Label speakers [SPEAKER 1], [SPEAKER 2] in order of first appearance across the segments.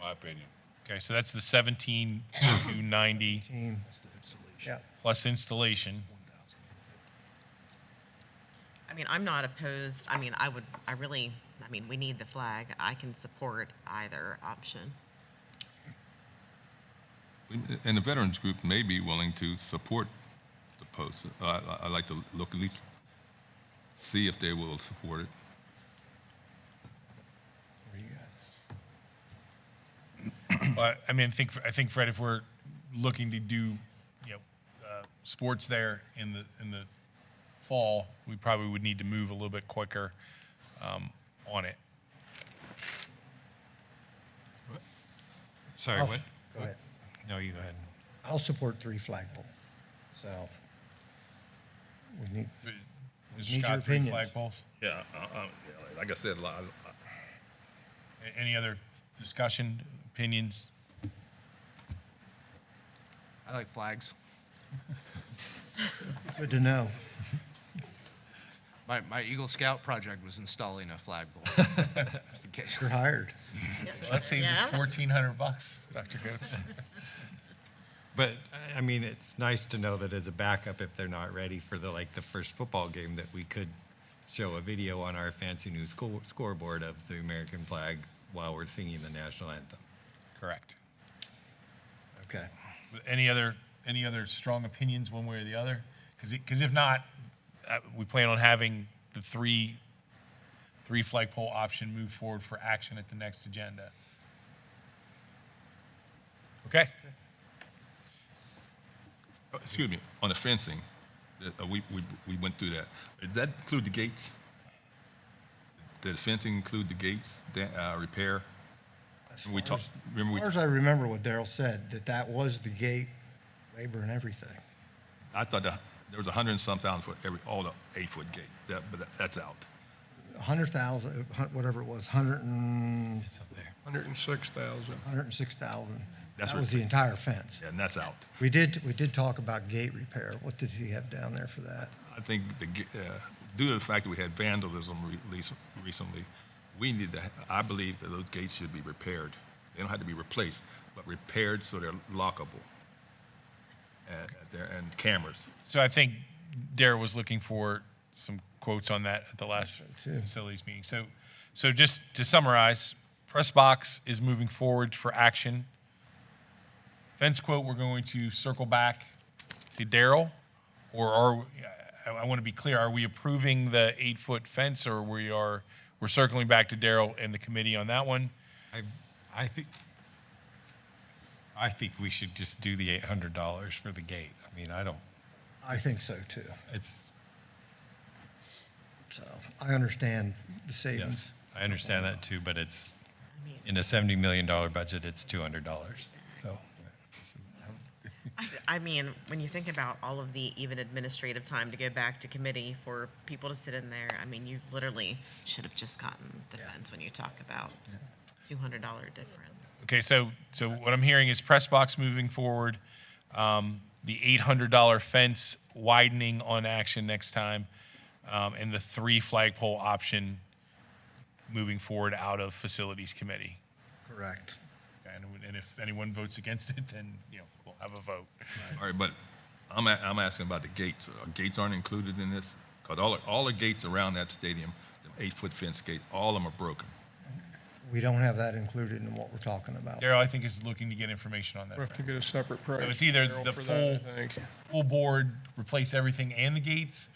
[SPEAKER 1] my opinion.
[SPEAKER 2] Okay, so that's the 17 to 90
[SPEAKER 3] Yeah.
[SPEAKER 2] plus installation.
[SPEAKER 4] I mean, I'm not opposed, I mean, I would, I really, I mean, we need the flag. I can support either option.
[SPEAKER 5] And the veterans group may be willing to support the post. I- I- I'd like to look, at least see if they will support it.
[SPEAKER 2] But, I mean, I think, I think Fred, if we're looking to do, you know, uh, sports there in the, in the fall, we probably would need to move a little bit quicker um, on it.
[SPEAKER 6] Sorry,
[SPEAKER 3] I'll-
[SPEAKER 6] what?
[SPEAKER 3] Go ahead.
[SPEAKER 6] No, you go ahead.
[SPEAKER 3] I'll support three flagpole. So we need,
[SPEAKER 2] Is
[SPEAKER 3] Need your
[SPEAKER 2] Scott three
[SPEAKER 3] opinions.
[SPEAKER 2] flagpoles?
[SPEAKER 1] Yeah.
[SPEAKER 5] Like I said, li- I-
[SPEAKER 2] A- Any other discussion, opinions?
[SPEAKER 7] I like flags.
[SPEAKER 3] good to know.
[SPEAKER 7] My, my Eagle Scout project was installing a flagpole. Just in case.
[SPEAKER 3] You're hired.
[SPEAKER 2] Let's say
[SPEAKER 4] it's Yeah.
[SPEAKER 2] 1,400 bucks, Dr. Coates.
[SPEAKER 6] But, I- I mean, it's nice to know that as a backup, if they're not ready for the, like, the first football game, that we could show a video on our fancy new school scoreboard of the American flag while we're singing the national anthem.
[SPEAKER 2] Correct.
[SPEAKER 3] Okay.
[SPEAKER 2] Any other, any other strong opinions one way or the other? Because, because if not, uh, we plan on having the three, three flagpole option move forward for action at the next agenda. Okay?
[SPEAKER 5] Uh, excuse me, on the fencing, that, uh, we, we, we went through that. Did that include the gates? Did the fencing include the gates, da- uh, repair? We talked, remember we,
[SPEAKER 3] As far as I remember what Daryl said, that that was the gate, labor and everything.
[SPEAKER 5] I thought that there was a hundred and some thousand for every, all the eight-foot gate, that, but that- that's out.
[SPEAKER 3] A hundred thousand, uh, hun- whatever it was, hundred and,
[SPEAKER 6] It's up there.
[SPEAKER 8] Hundred and six thousand.
[SPEAKER 3] hundred and six thousand.
[SPEAKER 5] That's
[SPEAKER 3] That
[SPEAKER 5] what
[SPEAKER 3] was the
[SPEAKER 5] it-
[SPEAKER 3] entire fence.
[SPEAKER 5] Yeah, and that's out.
[SPEAKER 3] We did, we did talk about gate repair. What did he have down there for that?
[SPEAKER 5] I think the, g- uh, due to the fact that we had vandalism release recently, we need to, ha- I believe that those gates should be repaired. They don't have to be replaced, but repaired so they're lockable. And, there- and cameras.
[SPEAKER 2] So I think Dara was looking for some quotes on that at the last
[SPEAKER 3] too.
[SPEAKER 2] facilities meeting. So, so just to summarize, press box is moving forward for action. Fence quote, we're going to circle back to Daryl, or are, I, I want to be clear, are we approving the eight-foot fence, or we are, we're circling back to Daryl and the committee on that one?
[SPEAKER 6] I, I think, I think we should just do the eight hundred dollars for the gate. I mean, I don't,
[SPEAKER 3] I think so too.
[SPEAKER 6] it's,
[SPEAKER 3] So I understand the
[SPEAKER 6] yes,
[SPEAKER 3] savings.
[SPEAKER 6] I understand that too, but it's,
[SPEAKER 4] I mean,
[SPEAKER 6] in a seventy million dollar budget, it's two hundred dollars, so.
[SPEAKER 4] I, I mean, when you think about all of the even administrative time to go back to committee for people to sit in there, I mean, you literally should have just gotten the fence when you talk about two hundred dollar difference.
[SPEAKER 2] Okay, so, so what I'm hearing is press box moving forward, um, the eight hundred dollar fence widening on action next time, um, and the three flagpole option moving forward out of facilities committee.
[SPEAKER 3] Correct.
[SPEAKER 2] And, and if anyone votes against it, then, you know, we'll have a vote.
[SPEAKER 5] All right, but I'm, a- I'm asking about the gates. Uh, Gates aren't included in this? Because all, all the gates around that stadium, the eight-foot fence gate, all of them are broken.
[SPEAKER 3] We don't have that included in what we're talking about.
[SPEAKER 2] Daryl, I think is looking to get information on that.
[SPEAKER 8] We have to
[SPEAKER 2] Fred.
[SPEAKER 8] get a separate price.
[SPEAKER 2] it's either
[SPEAKER 8] Daryl,
[SPEAKER 2] the
[SPEAKER 8] for that,
[SPEAKER 2] full-
[SPEAKER 8] I think.
[SPEAKER 2] Full board, replace everything and the gates,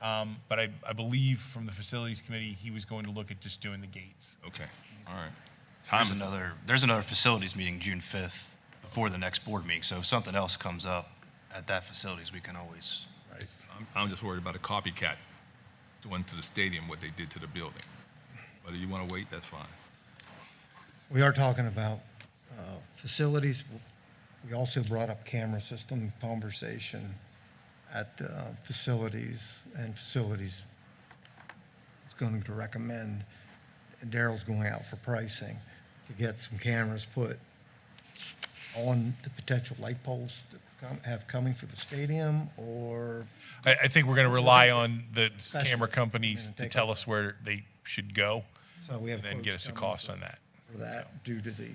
[SPEAKER 2] um, but I, I believe from the facilities committee, he was going to look at just doing the gates.
[SPEAKER 5] Okay, all right. Time
[SPEAKER 9] There's
[SPEAKER 5] is up.
[SPEAKER 9] another, there's another facilities meeting June 5th before the next board meeting. So if something else comes up at that facilities, we can always
[SPEAKER 5] I'm, I'm just worried about a copycat doing to the stadium what they did to the building. Whether you want to wait, that's fine.
[SPEAKER 3] We are talking about uh, facilities. We also brought up camera system conversation at uh, facilities, and facilities is going to recommend, and Daryl's going out for pricing, to get some cameras put on the potential light poles that come- have coming for the stadium, or
[SPEAKER 2] I, I think we're going to rely on the camera
[SPEAKER 3] Specialist.
[SPEAKER 2] companies
[SPEAKER 3] We're gonna
[SPEAKER 2] to
[SPEAKER 3] take
[SPEAKER 2] tell
[SPEAKER 3] over.
[SPEAKER 2] us where they should go
[SPEAKER 3] so we have.
[SPEAKER 2] and then
[SPEAKER 3] quotes
[SPEAKER 2] get us a
[SPEAKER 3] coming
[SPEAKER 2] cost
[SPEAKER 3] for-
[SPEAKER 2] on that.
[SPEAKER 3] For that, due to the